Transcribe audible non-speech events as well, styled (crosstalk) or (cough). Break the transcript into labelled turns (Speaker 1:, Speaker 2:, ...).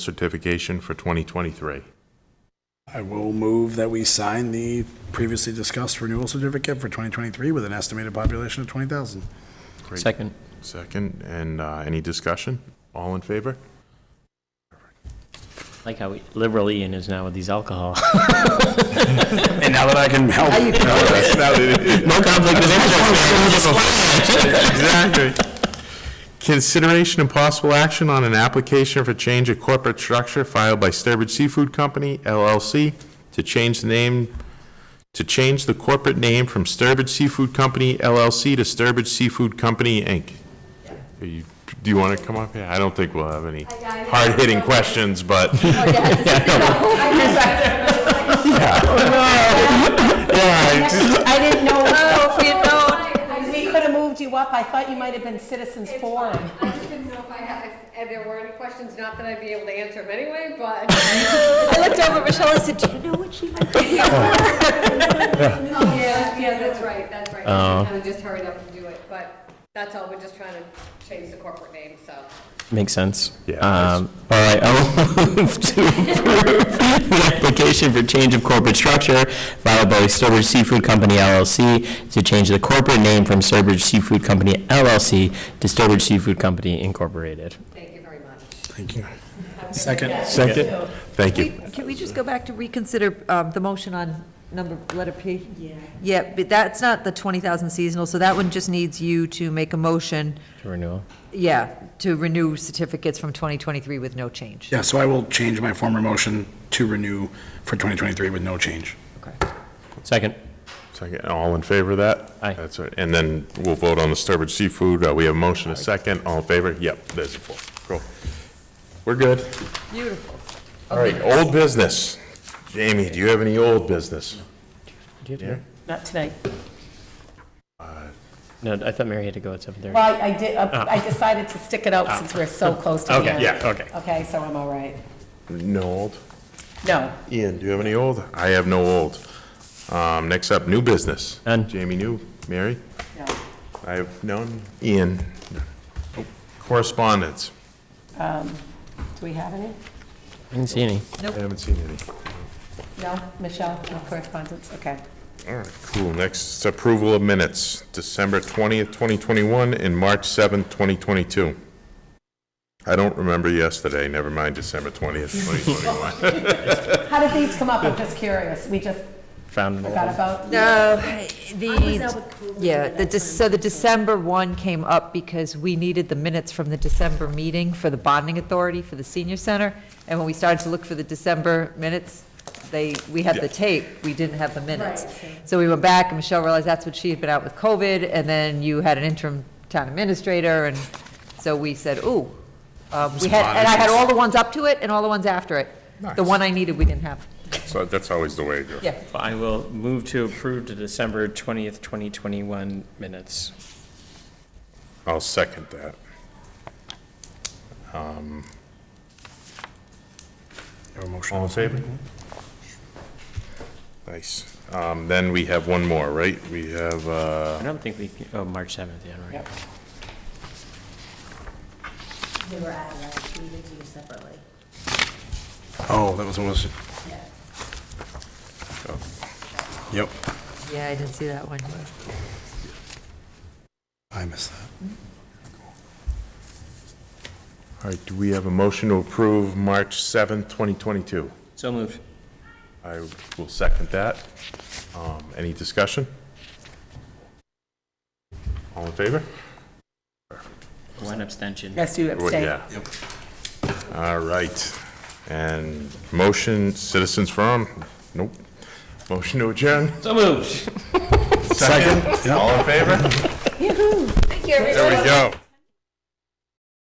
Speaker 1: certification for 2023.
Speaker 2: I will move that we sign the previously discussed renewal certificate for 2023 with an estimated population of 20,000.
Speaker 1: Great.
Speaker 3: Second.
Speaker 1: Second, and uh, any discussion? All in favor?
Speaker 3: Like how liberal Ian is now with these alcohol. (laughs)
Speaker 2: And now that I can help.
Speaker 3: No conflict of
Speaker 1: Exactly. Consideration and possible action on an application for change of corporate structure filed by Sturbridge Seafood Company LLC to change the name, to change the corporate name from Sturbridge Seafood Company LLC to Sturbridge Seafood Company, Inc. Are you- Do you want to come up here? I don't think we'll have any
Speaker 4: I- I-
Speaker 1: hard-hitting questions, but. Yeah, just-
Speaker 5: I didn't (laughs) know.
Speaker 4: Oh, if you don't-
Speaker 5: We could have moved you up. I thought you might have been citizens
Speaker 4: It's
Speaker 5: forum.
Speaker 4: fine. I just didn't know if I had, if- if there were any questions, not that I'd be able to answer them anyway, but.
Speaker 5: I looked over at Michelle and said, do you know what she might be?
Speaker 4: Oh, (laughs) (laughs) yeah, yeah, that's right, that's right. I kind of just hurried up and do it, but that's all, we're just trying to change the corporate name, so.
Speaker 3: Makes sense.
Speaker 1: Yeah,
Speaker 3: Um, All right, I'll (laughs) move to approve the application for change of corporate structure filed by Sturbridge Seafood Company LLC to change the corporate name from Sturbridge Seafood Company LLC to Sturbridge Seafood Company Incorporated.
Speaker 4: Thank you very much.
Speaker 2: Thank you. Second.
Speaker 1: Second, thank you.
Speaker 6: Can we just go back to reconsider um, the motion on number, letter P? Yeah. Yeah, but that's not the 20,000 seasonal, so that one just needs you to make a motion,
Speaker 3: To renewal.
Speaker 6: yeah, to renew certificates from 2023 with no change.
Speaker 2: Yeah, so I will change my former motion to renew for 2023 with no change.
Speaker 3: Second.
Speaker 1: Second, all in favor of that?
Speaker 3: Aye.
Speaker 1: That's right, and then we'll vote on the Sturbridge Seafood, Uh, we have a motion, a second, all in favor? Yep, there's a four, cool. We're good.
Speaker 6: Beautiful.
Speaker 1: All right, old business. Jamie, do you have any old business?
Speaker 3: Do you have
Speaker 1: Yeah.
Speaker 3: Mary?
Speaker 5: Not tonight.
Speaker 3: No, I thought Mary had to go at 7:30.
Speaker 5: Well, I I did, uh, I decided to stick it out since we're so close to the
Speaker 3: Okay,
Speaker 5: end.
Speaker 1: yeah, okay.
Speaker 5: Okay, so I'm all right.
Speaker 1: No old.
Speaker 5: No,
Speaker 1: Ian, do you have any old? I have no old. Um, next up, new business.
Speaker 3: None.
Speaker 1: Jamie, new, Mary?
Speaker 5: no.
Speaker 1: I have none. Ian? Correspondence?
Speaker 5: Do we have any?
Speaker 3: I didn't see any.
Speaker 1: I haven't seen any.
Speaker 5: No? Michelle, no correspondence? Okay.
Speaker 1: All right, cool. Next, is approval of minutes, December 20th, 2021, and March 7th, 2022. I don't remember yesterday, never mind December 20th, 2021.
Speaker 5: How did these come up? I'm just curious. We just
Speaker 3: Found it.
Speaker 5: forgot about?
Speaker 6: No, the, yeah, the, Dec- so the December one came up because we needed the minutes from the December meeting for the bonding authority for the senior center. And when we started to look for the December minutes, they, we had the tape, we didn't have the minutes. So we went back and Michelle realized that's what she had been out with COVID and then you had an interim town administrator and so we said, ooh. Um, we had, and I had all the ones up to it and all the ones after it. The
Speaker 1: Nice.
Speaker 6: one I needed, we didn't have.
Speaker 1: So that's always the way it goes.
Speaker 6: Yeah.
Speaker 3: I will move to approve the December 20th, 2021 minutes.
Speaker 1: I'll second that. Um,
Speaker 2: Your motion.
Speaker 1: All in favor? Nice. Um, Then we have one more, right? We have, uh,
Speaker 3: I don't think we, can- oh, March 7th, yeah, right.
Speaker 5: Yep.
Speaker 7: They were added, like, we did do separately.
Speaker 2: Oh, that was almost, yep,
Speaker 6: Yeah, I didn't see that one.
Speaker 2: I missed that.
Speaker 1: all right, do we have a motion to approve March 7th, 2022?
Speaker 3: So moved.
Speaker 1: I will second that. Um, Any discussion? All in favor?
Speaker 3: One abstention.
Speaker 5: Yes, you
Speaker 1: Well,
Speaker 5: abstained.
Speaker 1: Yeah. All right. And motion, citizens forum? Nope. Motion to adjourn?
Speaker 3: So moved.
Speaker 1: Second. All in favor?
Speaker 5: Yoo-hoo.
Speaker 1: There we go.